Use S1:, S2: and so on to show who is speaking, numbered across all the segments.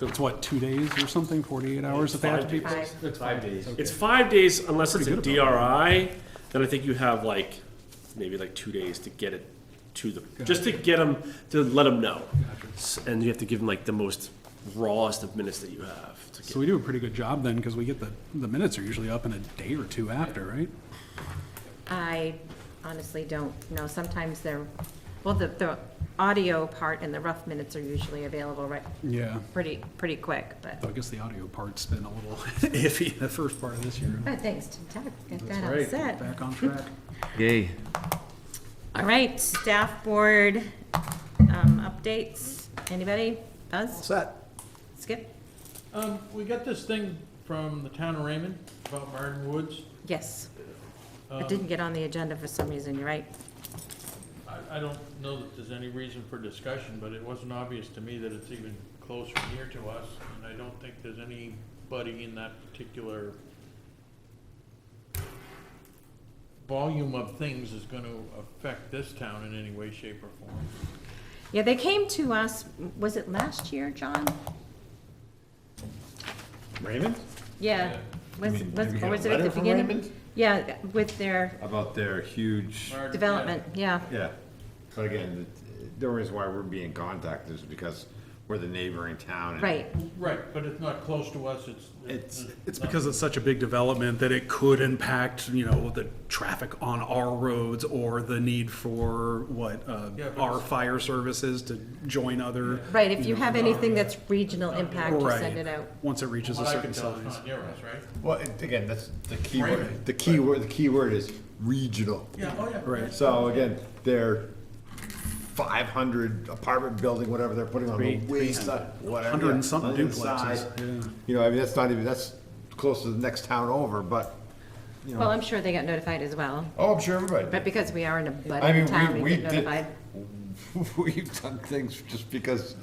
S1: It's what, two days or something, forty-eight hours that they have to be?
S2: Five.
S1: It's
S3: Five days.
S2: It's five days unless it's a
S1: Pretty good
S2: DRI. Then I think you have like maybe like two days to get it to them, just to get them to let them know. S- And you have to give them like the most rawest of minutes that you have. To
S1: So
S2: get.
S1: we do a pretty good job then, because we get the, the minutes are usually up in a day or two after, right?
S4: I honestly don't know. Sometimes they're, well, the, the audio part and the rough minutes are usually available right,
S1: Yeah.
S4: pretty, pretty quick, but,
S1: So I guess the audio part's been a little iffy the first part of this year.
S4: but thanks to Doug, get that
S1: That's
S4: all
S1: right.
S4: set.
S1: Back on track.
S5: Yay.
S4: All right, staff board, um, updates, anybody? Buzz?
S1: Set.
S4: Skip?
S6: Um, we got this thing from the town of Raymond about Martin Woods.
S4: Yes,
S6: Um,
S4: it didn't get on the agenda for some reason, you're right.
S6: I, I don't know that there's any reason for discussion, but it wasn't obvious to me that it's even close or near to us, and I don't think there's anybody in that particular volume of things is gonna affect this town in any way, shape, or form.
S4: Yeah, they came to us, was it last year, John?
S3: Raymond?
S4: Yeah, was,
S3: mean,
S4: was,
S3: did we
S4: or
S3: get a
S4: was it at
S3: letter
S4: the
S3: from
S4: beginning?
S3: Raymond?
S4: Yeah, with their
S3: About their huge,
S6: Martin, yeah.
S4: development, yeah.
S3: yeah. But again, the, the reason why we're being contacted is because we're the neighboring town. and-
S4: Right,
S6: Right, but it's not close to us, it's.
S3: It's-
S1: It's because it's such a big development that it could impact, you know, the traffic on our roads or the need for what, uh,
S6: Yeah, but
S1: our
S6: it's-
S1: fire services to join other.
S4: right, if you have anything that's regional impact, you send
S1: Right.
S4: it out.
S1: Once it reaches
S6: Well,
S1: a
S6: I
S1: certain
S6: can tell it's
S1: size.
S6: not near us, right?
S3: Well, and again, that's the key
S6: Raymond.
S3: word, the key word, the key word is regional.
S6: Yeah, oh, yeah.
S1: Right.
S3: So again, they're five hundred apartment building, whatever they're putting on the
S1: Three-
S3: way side, whatever.
S1: Hundred and
S3: yeah,
S1: something
S3: on the
S1: duplexes,
S3: side.
S1: yeah.
S3: You know, I mean, that's not even, that's close to the next town over, but, you
S4: Well,
S3: know,
S4: I'm sure they got notified as well,
S3: oh, I'm sure everybody.
S4: but
S3: did.
S4: because we are in a
S3: I
S4: budding
S3: mean, we-
S4: town, we
S3: we
S4: get
S3: did-
S4: notified.
S3: We've done things just because,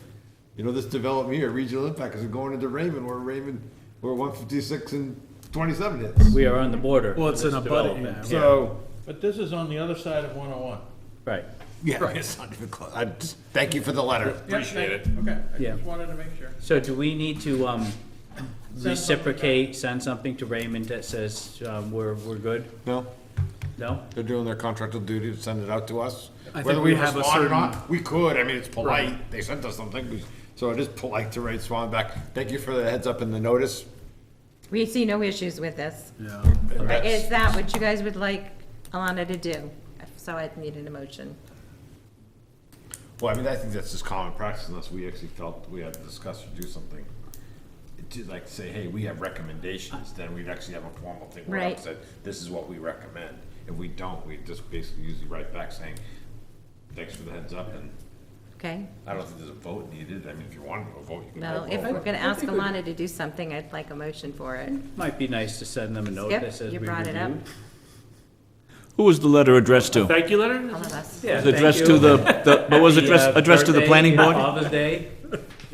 S3: you know, this development here, regional impact, is going into Raymond, where Raymond, where one fifty-six and twenty-seven is.
S5: We are on the border.
S1: Well, it's
S5: of
S1: in
S5: this
S1: a budding-
S5: development.
S1: yeah.
S3: So,
S6: But this is on the other side of 101.
S5: Right.
S3: yeah, it's not even close. I just, thank you for the letter.
S6: Appreciate it. Okay, I
S5: Yeah.
S6: just wanted to make sure.
S5: So do we need to, um,
S6: something
S5: reciprocate, send something to Raymond that says, um, we're, we're good?
S3: No,
S5: No?
S3: they're doing their contractual duty to send it out to us.
S1: I think
S3: Whether
S1: we
S3: we
S1: have a
S3: respond or
S1: certain-
S3: not, we could. I mean, it's polite. They sent us something. So it is polite to write Swan back. Thank you for the heads up and the notice.
S4: We see no issues with this.
S1: Yeah.
S3: And that's-
S4: Is that what you guys would like Alana to do? So I'd need an emotion.
S3: Well, I mean, I think that's just common practice unless we actually felt we had to discuss or do something. To like say, hey, we have recommendations, then we'd actually have a formal thing where
S4: Right.
S3: it said, this is what we recommend. If we don't, we just basically usually write back saying, thanks for the heads up and
S4: Okay,
S3: I don't think there's a vote needed. I mean, if you wanted to vote, you can.
S4: well,
S3: vote.
S4: if we're gonna
S5: I
S4: ask
S5: think we-
S4: Alana to do something, I'd like a motion for it.
S5: Might be nice to send them a note that
S4: Skip,
S5: says
S4: you
S5: we
S4: brought it up,
S5: reviewed.
S7: Who was the letter addressed to? It
S2: Thank you, letter.
S4: all of us.
S5: Yeah,
S7: was
S5: thank
S7: addressed
S5: you.
S7: to the, the- but was
S5: Happy, uh,
S7: addressed, addressed to the
S5: birthday,
S7: planning board?
S5: Father's Day.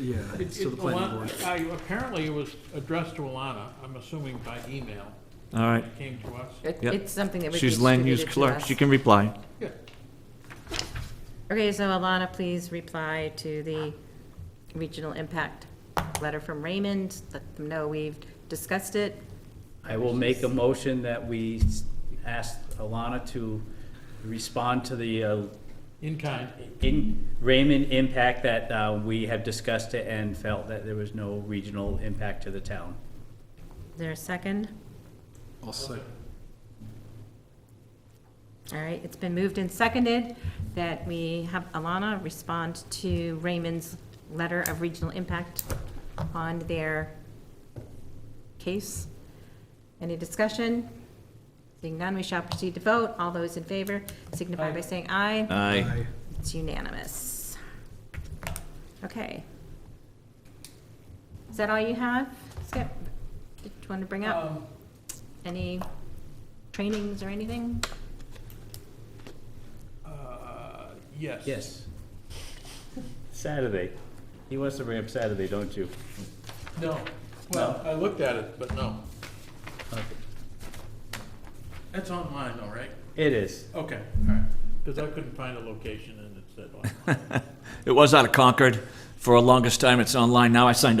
S1: Yeah, it's to the
S6: It-
S1: planning
S6: Alana-
S1: board.
S6: I- Apparently it was addressed to Alana, I'm assuming by email,
S7: All right.
S6: it came to us.
S4: It-
S7: Yep.
S4: It's something that would be
S7: She's land use
S4: distributed to
S7: clerk.
S4: us.
S7: She can reply.
S6: Yeah.
S4: Okay, so Alana, please reply to the regional impact letter from Raymond. Let them know we've discussed it.
S5: I will make a motion that we s- ask Alana to respond to the, uh,
S6: In kind.
S5: in Raymond impact that, uh, we have discussed it and felt that there was no regional impact to the town.
S4: Is there a second?
S1: I'll say.
S4: All right, it's been moved and seconded that we have Alana respond to Raymond's letter of regional impact on their case. Any discussion? Seeing none, we shall proceed to vote. All those in favor signify by saying aye.
S7: Aye.
S4: It's unanimous. Okay. Is that all you have, Skip? Did you want to bring up
S6: Um,
S4: any trainings or anything?
S6: uh, Yes.
S5: Yes. Saturday. He wants to bring up Saturday, don't you?
S6: No, well, I looked at it, but no. That's online though, right?
S5: It is.
S6: Okay, all right, because I couldn't find a location and it said online.
S7: It was out of Concord for a longest time. It's online now. I signed up.